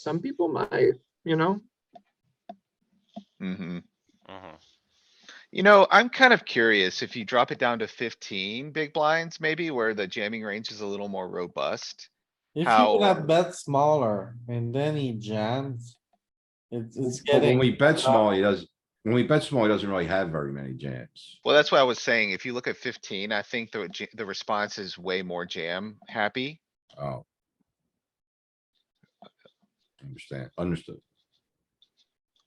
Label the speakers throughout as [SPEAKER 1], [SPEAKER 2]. [SPEAKER 1] some people might, you know?
[SPEAKER 2] hmm
[SPEAKER 3] Mhm.
[SPEAKER 2] You know, I'm kind of curious if you drop it down to fifteen big blinds, maybe where the jamming range is a little more robust.
[SPEAKER 4] If
[SPEAKER 2] How-
[SPEAKER 4] you would have bet smaller and then he jams. It's, it's
[SPEAKER 5] But when
[SPEAKER 4] getting,
[SPEAKER 5] we bet small, he does, when we bet small, he doesn't really have very many jams.
[SPEAKER 2] Well, that's what I was saying. If you look at fifteen, I think the, j- the response is way more jam happy.
[SPEAKER 5] Oh. Understand, understood.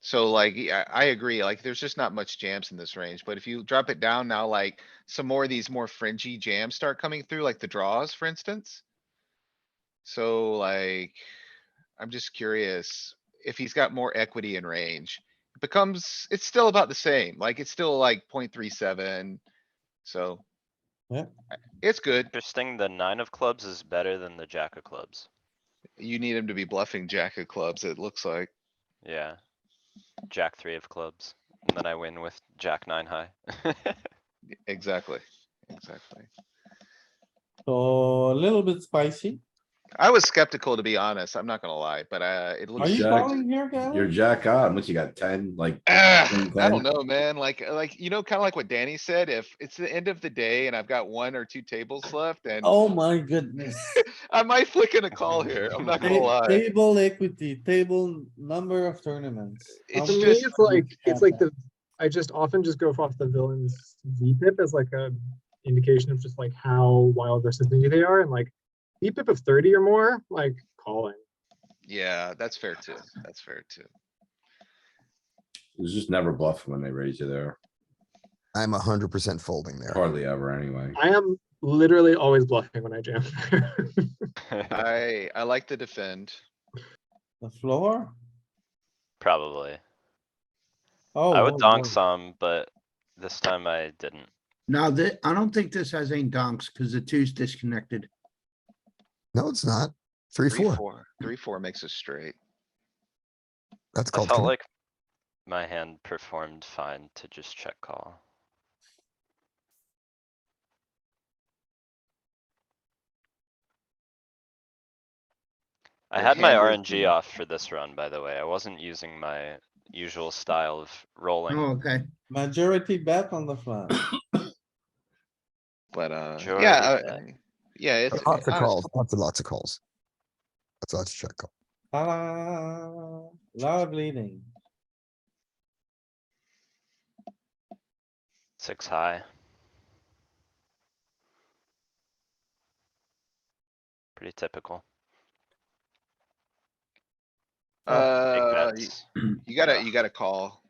[SPEAKER 2] So like, yeah, I agree, like, there's just not much jams in this range, but if you drop it down now, like, some more of these more fringy jams start coming through, like the draws, for instance. So like, I'm just curious if he's got more equity in range. It Becomes, it's still about the same, like, it's still like 0.37. so.
[SPEAKER 4] Yeah.
[SPEAKER 2] I- It's good.
[SPEAKER 3] Interesting, the nine of clubs is better than the jack of clubs.
[SPEAKER 2] You need him to be bluffing jack of clubs, it looks like.
[SPEAKER 3] Yeah. Jack three of clubs, and then I win with jack nine high.
[SPEAKER 2] Exactly, exactly.
[SPEAKER 4] so a little bit spicy.
[SPEAKER 2] I was skeptical, to be honest. I'm not gonna lie, but uh, it
[SPEAKER 4] Are
[SPEAKER 2] looks.
[SPEAKER 4] you
[SPEAKER 5] Jack-
[SPEAKER 4] calling here, Gavin?
[SPEAKER 5] You're jack on, once you got ten, like.
[SPEAKER 2] Ah,
[SPEAKER 5] 10,
[SPEAKER 2] I don't
[SPEAKER 5] 10.
[SPEAKER 2] know, man. Like, uh, like, you know, kinda like what Danny said, if it's the end of the day and I've got one or two tables left and
[SPEAKER 4] Oh my goodness.
[SPEAKER 2] I might flick in a call here. I'm not gonna
[SPEAKER 4] Ta-
[SPEAKER 2] lie.
[SPEAKER 4] Table equity, table number of tournaments.
[SPEAKER 2] It's
[SPEAKER 1] To
[SPEAKER 4] How
[SPEAKER 1] me,
[SPEAKER 4] many
[SPEAKER 2] just-
[SPEAKER 1] it's like,
[SPEAKER 4] you
[SPEAKER 1] it's
[SPEAKER 4] have
[SPEAKER 1] like
[SPEAKER 4] that?
[SPEAKER 1] the, I just often just go off the villain's VPIP as like a indication of just like how wild versus new they are and like VPIP of thirty or more, like calling.
[SPEAKER 2] Yeah, that's fair too. That's fair too.
[SPEAKER 5] It's just never bluff when they raise you there,
[SPEAKER 6] I'm a hundred percent folding there.
[SPEAKER 5] hardly ever anyway.
[SPEAKER 1] I am literally always bluffing when I jam.
[SPEAKER 2] I, I like to defend.
[SPEAKER 4] The floor?
[SPEAKER 3] Probably.
[SPEAKER 4] Oh.
[SPEAKER 3] I would
[SPEAKER 4] oh,
[SPEAKER 3] donk
[SPEAKER 4] oh.
[SPEAKER 3] some, but this time I didn't.
[SPEAKER 7] Now, thi- I don't think this has any donks because the two's disconnected.
[SPEAKER 6] No, it's not. Three,
[SPEAKER 2] Three,
[SPEAKER 6] four.
[SPEAKER 2] four, three, four makes us straight.
[SPEAKER 6] That's
[SPEAKER 3] I
[SPEAKER 6] called.
[SPEAKER 3] felt
[SPEAKER 6] connect-
[SPEAKER 3] like my hand performed fine to just check call. I
[SPEAKER 2] Your
[SPEAKER 3] had my
[SPEAKER 2] hand was
[SPEAKER 3] RNG
[SPEAKER 2] the-
[SPEAKER 3] off for this run, by the way. I wasn't using my usual style of rolling.
[SPEAKER 7] Oh, okay.
[SPEAKER 4] Majority bet on the flop.
[SPEAKER 2] But, uh,
[SPEAKER 3] Majority
[SPEAKER 2] yeah,
[SPEAKER 3] bet.
[SPEAKER 2] uh, yeah, it's. uh,
[SPEAKER 6] Lots of
[SPEAKER 2] honest-
[SPEAKER 6] calls, lots and lots of calls. That's lots of check call.
[SPEAKER 4] Ta-da, lot of leading.
[SPEAKER 3] Six high. Pretty typical. Big
[SPEAKER 2] Uh, y-
[SPEAKER 3] bets.
[SPEAKER 2] you gotta, you gotta call.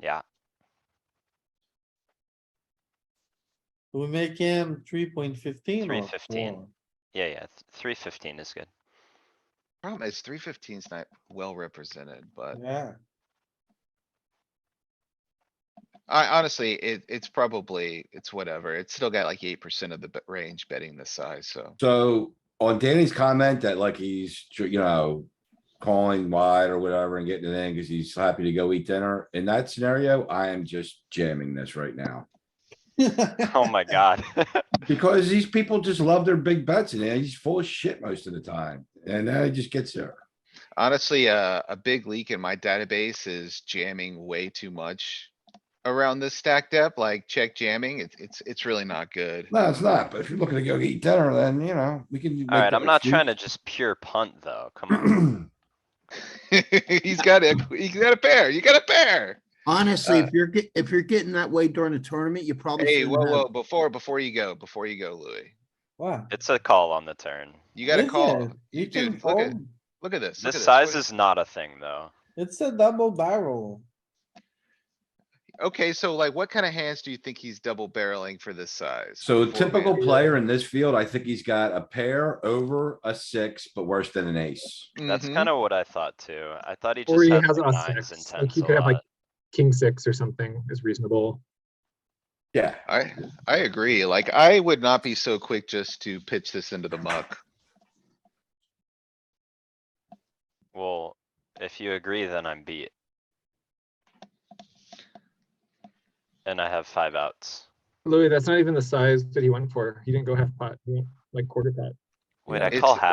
[SPEAKER 3] Yeah,
[SPEAKER 4] We make him three point fifteen or
[SPEAKER 3] 3.15.
[SPEAKER 4] four?
[SPEAKER 3] yeah, yeah. Three fifteen is good.
[SPEAKER 2] Problem is three fifteen's not well represented, but
[SPEAKER 4] Yeah,
[SPEAKER 2] I honestly, it, it's probably, it's whatever. It's still got like eight percent of the bet- range betting this size, so.
[SPEAKER 5] So on Danny's comment that like he's, tr- you know, calling wide or whatever and getting it in because he's happy to go eat dinner. In that scenario, I am just jamming this right now.
[SPEAKER 3] Oh my god.
[SPEAKER 5] Because these people just love their big bets and he's full of shit most of the time. And then he just gets there.
[SPEAKER 2] Honestly, uh, a big leak in my database is jamming way too much. Around this stack depth, like check jamming, it's, it's, it's really not good.
[SPEAKER 5] No, it's not, but if you're looking to go eat dinner, then, you know, we can.
[SPEAKER 3] Alright, I'm not trying to just pure punt though. Come on.
[SPEAKER 5] to.
[SPEAKER 2] He's got a, he's got a pair, you got a pair.
[SPEAKER 7] Honestly,
[SPEAKER 2] Uh,
[SPEAKER 7] if you're, get- if you're getting that way during the tournament, you probably.
[SPEAKER 2] Hey,
[SPEAKER 7] shouldn't
[SPEAKER 2] whoa,
[SPEAKER 7] have-
[SPEAKER 2] whoa, before, before you go, before you go, Louis,
[SPEAKER 4] wow.
[SPEAKER 3] It's a call on the turn.
[SPEAKER 2] you gotta
[SPEAKER 4] Is
[SPEAKER 2] call.
[SPEAKER 4] it? You
[SPEAKER 2] Dude,
[SPEAKER 4] can
[SPEAKER 2] look at-
[SPEAKER 4] fold.
[SPEAKER 2] Look at this. look at
[SPEAKER 3] This size
[SPEAKER 2] What-
[SPEAKER 3] is not a thing though.
[SPEAKER 4] It's a double barrel.
[SPEAKER 2] Okay, so like what kind of hands do you think he's double barreling for this size?
[SPEAKER 5] So a
[SPEAKER 2] Four
[SPEAKER 5] typical
[SPEAKER 2] man.
[SPEAKER 5] player in this field, I think he's got a pair over a six, but worse than an ace.
[SPEAKER 3] That's
[SPEAKER 2] Mhm.
[SPEAKER 3] kinda what I thought too. I thought he
[SPEAKER 1] Mm-hmm. Or
[SPEAKER 3] just
[SPEAKER 1] he
[SPEAKER 3] had
[SPEAKER 1] has
[SPEAKER 3] like
[SPEAKER 1] a
[SPEAKER 3] nines and
[SPEAKER 1] six, like
[SPEAKER 3] tens
[SPEAKER 1] he
[SPEAKER 3] a
[SPEAKER 1] could have like
[SPEAKER 3] lot.
[SPEAKER 1] king six or something is reasonable.
[SPEAKER 5] Yeah.
[SPEAKER 2] I, I agree. Like, I would not be so quick just to pitch this into the muck.
[SPEAKER 3] Well, if you agree, then I'm beat. And I have five outs.
[SPEAKER 1] Louis, that's not even the size that he went for. He didn't go half pot, he went like quarter pot.
[SPEAKER 3] Wait,
[SPEAKER 5] Yeah.
[SPEAKER 3] I
[SPEAKER 2] It's-
[SPEAKER 3] call half.